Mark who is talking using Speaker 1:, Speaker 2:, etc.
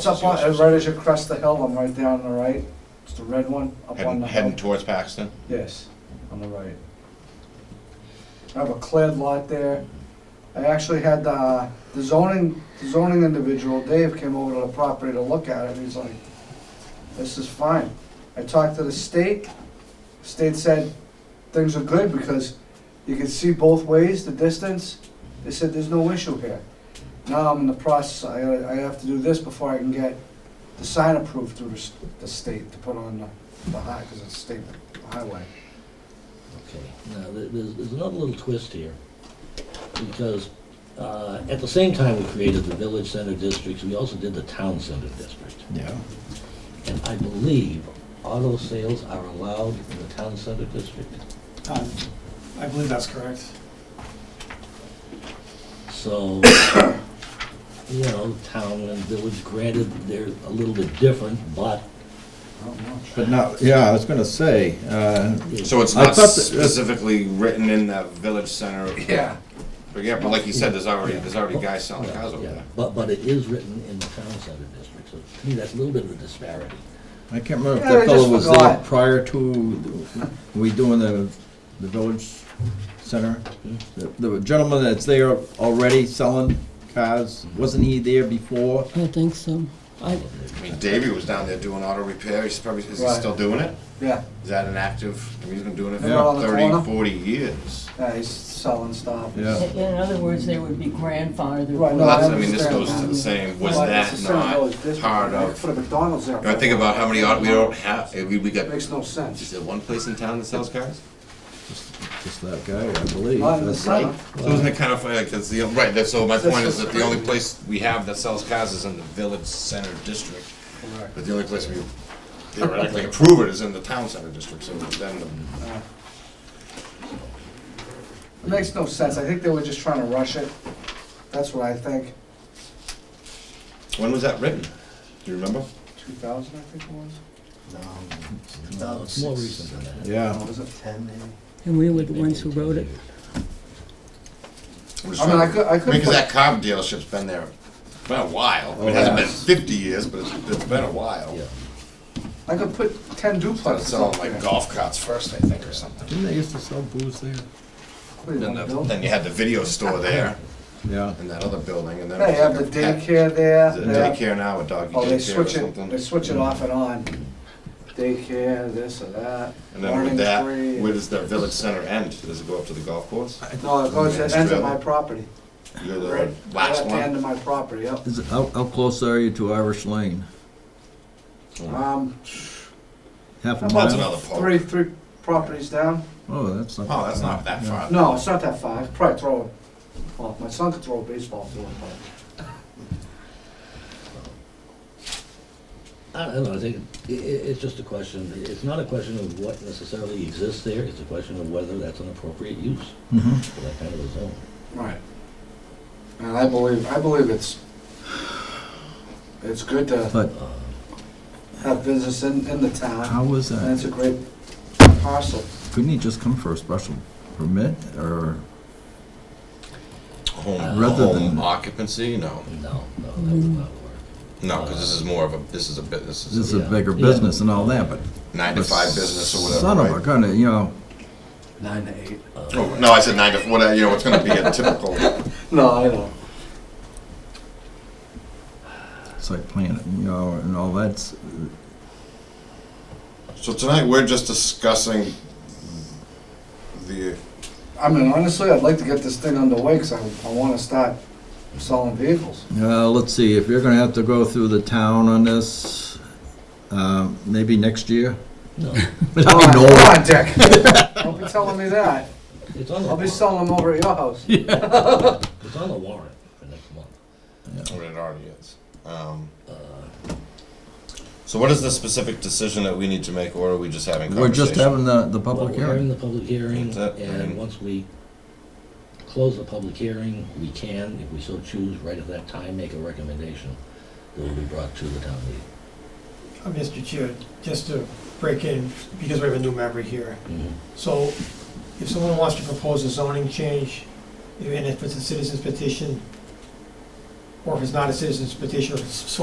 Speaker 1: It's up on, uh, right as you crest the hill, I'm right there on the right. It's the red one, up on
Speaker 2: Heading,
Speaker 1: the hill.
Speaker 2: heading towards Paxton?
Speaker 1: Yes, on the right. I have a cleared lot there. I actually had, uh, the zoning, the zoning individual, Dave, came over to the property to look at it, and he's like, this is fine. I talked to the state, state said, things are good because you can see both ways, the distance. They said, there's no issue here. Now I'm in the process, I, gotta- I have to do this before I can get the sign approved through the s- the state to put on the, the high, because it's state highway.
Speaker 3: Okay, now, th- there's, there's another little twist here, because, uh, at the same time we created the village center districts, we also did the town center district.
Speaker 2: Yeah.
Speaker 3: And I believe auto sales are allowed in the town center district.
Speaker 4: Uh, I believe that's correct.
Speaker 3: So, you know, town and village, granted, they're a little bit different, but.
Speaker 1: Oh,
Speaker 5: But no, yeah, I was gonna say, uh,
Speaker 2: So it's
Speaker 5: I
Speaker 2: not
Speaker 5: thought that-
Speaker 2: specifically written in the village center? Yeah. But yeah, but like you said, there's already, there's already guys selling cars over
Speaker 3: Yeah,
Speaker 2: there.
Speaker 3: But, but it is written in the town center district, so to me, that's a little bit of a disparity.
Speaker 5: I can't remember if
Speaker 1: Yeah, I
Speaker 5: that fellow
Speaker 1: just
Speaker 5: was there
Speaker 1: forgot.
Speaker 5: prior to, we doing the, the village center? The the gentleman that's there already selling cars, wasn't he there before?
Speaker 6: I think so. I,
Speaker 2: I mean, Davey was down there doing auto repair, he's probably, is he
Speaker 1: Right.
Speaker 2: still doing it?
Speaker 1: Yeah,
Speaker 2: Is that an active, I mean, he's been doing it
Speaker 1: Yeah. Around
Speaker 2: for
Speaker 1: the
Speaker 2: 30,
Speaker 1: corner.
Speaker 2: 40 years.
Speaker 1: yeah, he's selling stuff.
Speaker 5: Yeah.
Speaker 6: in other words, there would be grandfathered.
Speaker 1: Right, no,
Speaker 2: Well, that's, I mean, this
Speaker 1: understand
Speaker 2: goes to the same, was
Speaker 1: Well,
Speaker 2: that
Speaker 1: it's the same
Speaker 2: not
Speaker 1: village district.
Speaker 2: part
Speaker 1: They
Speaker 2: of,
Speaker 1: Put a McDonald's there.
Speaker 2: you know, think about how many, auto we don't have, we, we got,
Speaker 1: It Makes no
Speaker 2: is
Speaker 1: sense.
Speaker 2: there one place in town that sells cars?
Speaker 5: Just that guy, I believe.
Speaker 1: Not in the
Speaker 5: That's
Speaker 1: center.
Speaker 2: So isn't it kind of funny, like, it's the, right, that- so my
Speaker 1: That's
Speaker 2: point is
Speaker 1: just
Speaker 2: that the only
Speaker 1: crazy.
Speaker 2: place we have that sells cars is in the village center district,
Speaker 1: Correct.
Speaker 2: but the only place we theoretically approve it is in the town center district, so then, the-
Speaker 1: Yeah. It makes no sense. I think they were just trying to rush it. That's what I think.
Speaker 2: when was that written? Do you remember?
Speaker 1: Two thousand, I think it was.
Speaker 3: No, it's more recent than that.
Speaker 5: Yeah,
Speaker 1: Or was it?
Speaker 6: And we were the ones who wrote it.
Speaker 2: I'm just
Speaker 1: I mean, I
Speaker 2: trying-
Speaker 1: could- I could
Speaker 2: Because
Speaker 1: put-
Speaker 2: that car dealership's been there, been a while, I mean, it
Speaker 5: Oh,
Speaker 2: hasn't
Speaker 5: yeah.
Speaker 2: been fifty years, but it's, it's been a while.
Speaker 3: Yeah.
Speaker 1: I could put ten
Speaker 2: Started
Speaker 1: duplexes up
Speaker 2: selling like
Speaker 1: there.
Speaker 2: golf carts first, I think, or something.
Speaker 5: didn't they used to sell booze there?
Speaker 1: What do you
Speaker 2: Then
Speaker 1: wanna
Speaker 2: the-
Speaker 1: build?
Speaker 2: then you had the video store there,
Speaker 5: Yeah,
Speaker 2: and that other building, and then. it
Speaker 1: They
Speaker 2: was
Speaker 1: have the
Speaker 2: like a pet-
Speaker 1: daycare there.
Speaker 2: Is it
Speaker 1: they have-
Speaker 2: daycare now, a doggy
Speaker 1: Oh, they
Speaker 2: daycare or
Speaker 1: switch it,
Speaker 2: something?
Speaker 1: they switch it off and on. Daycare, this or that.
Speaker 2: And then with
Speaker 1: learning
Speaker 2: that,
Speaker 1: tree.
Speaker 2: where does the village center end? Does it go up to the golf course?
Speaker 1: No, it goes, it ends at my property.
Speaker 2: You go to
Speaker 1: Right.
Speaker 2: the last
Speaker 1: At the end
Speaker 2: one?
Speaker 1: of my property, yep.
Speaker 5: is, it- how, how close are you to Irish Lane?
Speaker 1: Um,
Speaker 5: Half a
Speaker 1: How
Speaker 2: That's
Speaker 1: much?
Speaker 5: mile?
Speaker 2: another
Speaker 1: three,
Speaker 2: poll.
Speaker 1: three properties down.
Speaker 5: Oh, that's not.
Speaker 2: Oh, that's not that far.
Speaker 1: No, it's not that far. I could Probably throw, well, my son could throw a baseball through it, but
Speaker 3: I don't know, I think i- i it's just a question, it's not a question of what necessarily exists there, it's a question of whether that's an appropriate use
Speaker 5: Mhm.
Speaker 3: for that kind of a zone.
Speaker 1: Right. And I believe, I believe it's, it's good to
Speaker 5: But
Speaker 4: uh,
Speaker 1: have business in, in the town.
Speaker 5: how was
Speaker 1: And it's a
Speaker 5: that?
Speaker 1: great parcel.
Speaker 5: Couldn't he just come for a special permit or?
Speaker 2: Home,
Speaker 5: Rather
Speaker 2: home
Speaker 5: than-
Speaker 2: occupancy, no.
Speaker 3: No, no, that would
Speaker 6: Mm.
Speaker 3: not work.
Speaker 2: No, because this is more of a, this is a bit, this
Speaker 5: This
Speaker 2: is
Speaker 5: is
Speaker 2: a
Speaker 5: a bigger
Speaker 3: Yeah.
Speaker 5: business and all that, but.
Speaker 2: nine to five business or whatever,
Speaker 5: Son of a
Speaker 2: right?
Speaker 5: gun, you know,
Speaker 4: Nine to eight.
Speaker 2: Oh, No, I said nine to, whatever, you know, it's gonna be a typical,
Speaker 1: No, I know.
Speaker 5: site plan, you know, and all that's,
Speaker 2: so tonight, we're just discussing the,
Speaker 1: I mean, honestly, I'd like to get this thing underway, because I, I want to start selling vehicles.
Speaker 5: uh, let's see, if you're gonna have to go through the town on this, um, maybe next year?
Speaker 3: No,
Speaker 1: Come on,
Speaker 5: know.
Speaker 1: Come on, Dick. Don't be telling me that.
Speaker 3: it's on the
Speaker 1: I'll be
Speaker 3: warrant,
Speaker 1: selling them over at your house.
Speaker 3: it's on the warrant for next month.
Speaker 2: what it already is. Um,
Speaker 3: Uh,
Speaker 2: So what is the specific decision that we need to make, or are we just having
Speaker 5: We're
Speaker 2: conversation?
Speaker 5: just having the, the
Speaker 3: well,
Speaker 5: public
Speaker 3: we're having
Speaker 5: hearing.
Speaker 3: the public hearing,
Speaker 2: That's it, I
Speaker 3: and
Speaker 2: mean-
Speaker 3: once we close the public hearing, we can, if we so choose, right at that time, make a recommendation that will be brought to the town
Speaker 4: Mr. Um, Chair, just to break in, because we have a new member here.
Speaker 6: Mm-hmm.
Speaker 3: meeting.
Speaker 4: So if someone wants to propose a zoning change, and if it's a citizen's petition, or if it's not a citizen's petition, or if it's